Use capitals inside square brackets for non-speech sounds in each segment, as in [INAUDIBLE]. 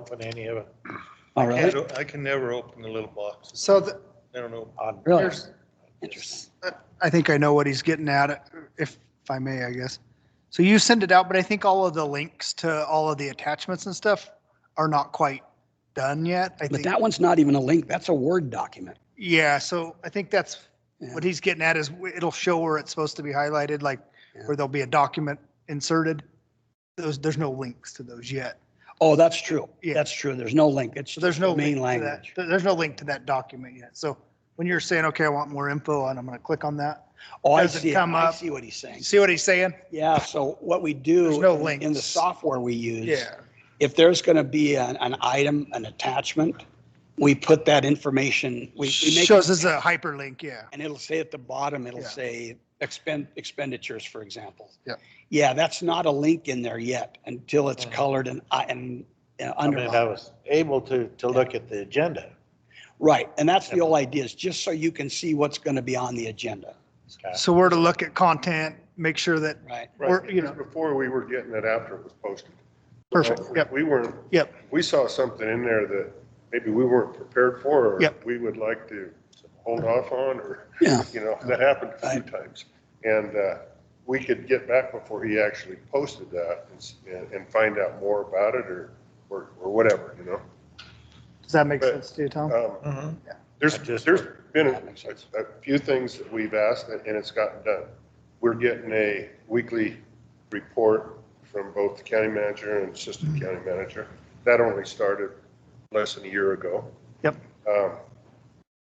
open any of it. Oh, I really? can't- I can never open the little boxes. So the- I don't know. on- Really? here's, Interesting. I think I know what he's getting at, if if I may, I guess. So you send it out, but I think all of the links to all of the attachments and stuff are not quite done yet. I But think, that one's not even a link. That's a Word document. yeah, so I think that's Yeah. what he's getting at is w- it'll show where it's supposed to be highlighted, like Yeah. where there'll be a document inserted. Those, there's no links to those yet. Oh, that's true. Yeah. That's true. There's no link. It's So there's no main link to that- language. there- There's no link to that document yet. So when you're saying, okay, I want more info and I'm going to click on that, Oh, I doesn't see. it. come I up. see what he's saying. see what he's saying? Yeah, so what we do. There's no in- In the links. software we use. If there's going to be an, an item, an attachment, we put that information, we, we make. Shows as a hyperlink, yeah. And it'll say at the bottom, it'll Yeah. say expend, expenditures, for example. Yeah. Mm. Yeah, that's not a link in there yet until it's colored and, i- and uh, I mean, I underlined. was able to, to look at the agenda. Right, and that's the whole idea, is just so you can see what's going to be on the agenda, Scott. So we're to look at content, make sure that, right? Or, you know- Before we were getting it after it was posted. perfect, yep, We weren't, yep, we saw something in there that maybe we weren't prepared for. or Yep. We would like to hold off on, or, Yeah. you know, that happened a few Right. times. And uh, we could get back before he actually posted that and s- and, and find out more about it or, or or whatever, you know? does that make But- sense to you, Tom? Um, Mhm. There's, That just- there's been That makes sense. a, a few things that we've asked and and it's gotten done. We're getting a weekly report from both the county manager and assistant county manager. That only started less than a year ago. Yep. Um,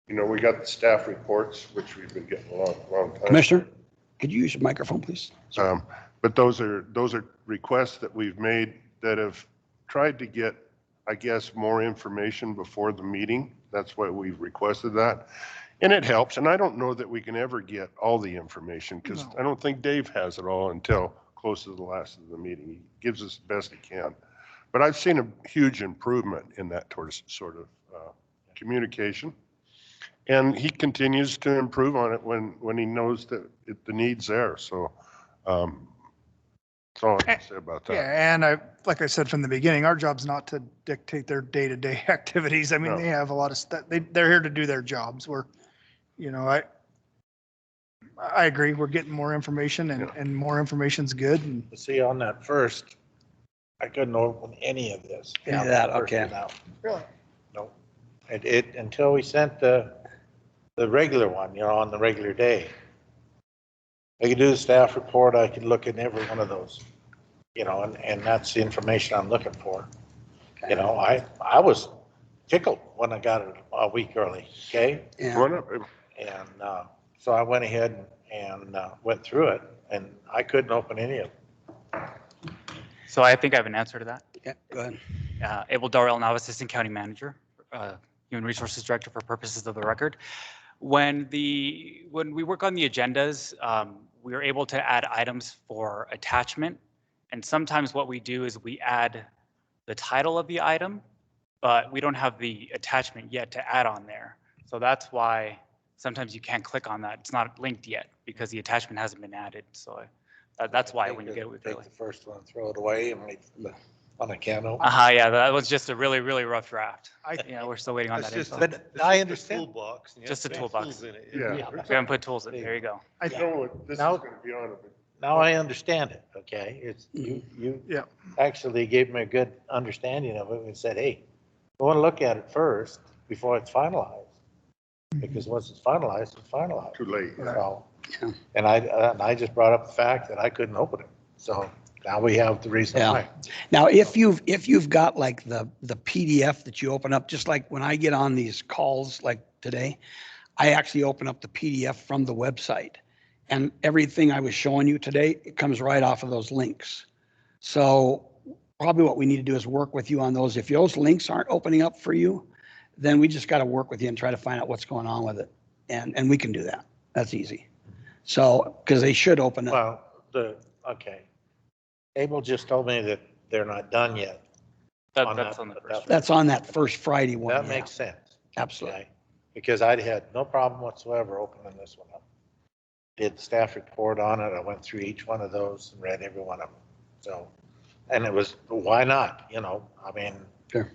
You know, we got the staff reports, which we've been getting a long, long time. Commissioner, could you use your microphone, please? Um, But those are, those are requests that we've made that have tried to get, I guess, more information before the meeting. That's why we've requested that. And it helps, and I don't know that we can ever get all the information because No. I don't think Dave has it all until close to the last of the meeting. He gives us the best he can. But I've seen a huge improvement in that towards sort of uh, communication. And he continues to improve on it when, when he knows that it- the need's there, so. um, That's all I can say about that. Yeah, and I, like I said from the beginning, our job's not to dictate their day-to-day [LAUGHS] activities. I mean, No. they have a lot of stuff, they, they're here to do their jobs. We're, you know, I, I agree, we're getting more information and, Yeah. and more information's good and You See, on that first, I couldn't open any of this. Any of that, First okay. one out. Really? No. It, it, until we sent the, the regular one, you know, on the regular day. I could do the staff report, I could look at every one of those, you know, and, and that's the information I'm looking for. You know, I, I was tickled when I got it a week early, okay? Yeah, One up, uh, And uh, so I went ahead and uh, went through it, and I couldn't open any of it. So I think I have an answer to that. yeah, go ahead. Uh, Abel Darrell, now Assistant County Manager, uh, Human Resources Director for purposes of the record. When the, when we work on the agendas, um, we are able to add items for attachment. And sometimes what we do is we add the title of the item, but we don't have the attachment yet to add on there. So that's why sometimes you can't click on that. It's not linked yet because the attachment hasn't been added. So I- that- that's why when you get it weekly. Take the first one, throw it away, and wait for the- on a can opener. Uh-huh, yeah, that was just a really, really rough draft. I, Yeah, we're still waiting on It's that just info. a- But it's just I a understand. Toolbox. and you Just have a to put toolbox. tools in it. Yeah. We haven't put tools in, there you go. I, You know what, this is Now- going to be on it, but Now I understand it, okay? It's, Mhm. you Yeah. actually gave me a good understanding of it and said, hey, I want to look at it first before it's finalized. Because once it's finalized, it's finalized. too late. So, Yeah. and I, and I just brought up the fact that I couldn't open it. So now we have the reason Yeah. why. Now, if you've, if you've got like the, the PDF that you open up, just like when I get on these calls like today, I actually open up the PDF from the website. And everything I was showing you today, it comes right off of those links. So probably what we need to do is work with you on those. If those links aren't opening up for you, then we just got to work with you and try to find out what's going on with it. And, and we can do that. That's easy. So, because they should open up. Well, the, okay. Abel just told me that they're not done yet. That, on that's that- on the that- first. That's on that first Friday one. That yeah. makes sense. Absolutely. Okay, because I'd had no problem whatsoever opening this one up. Did the staff report on it, I went through each one of those and read every one of them, so. And it was, why not, you know, I mean,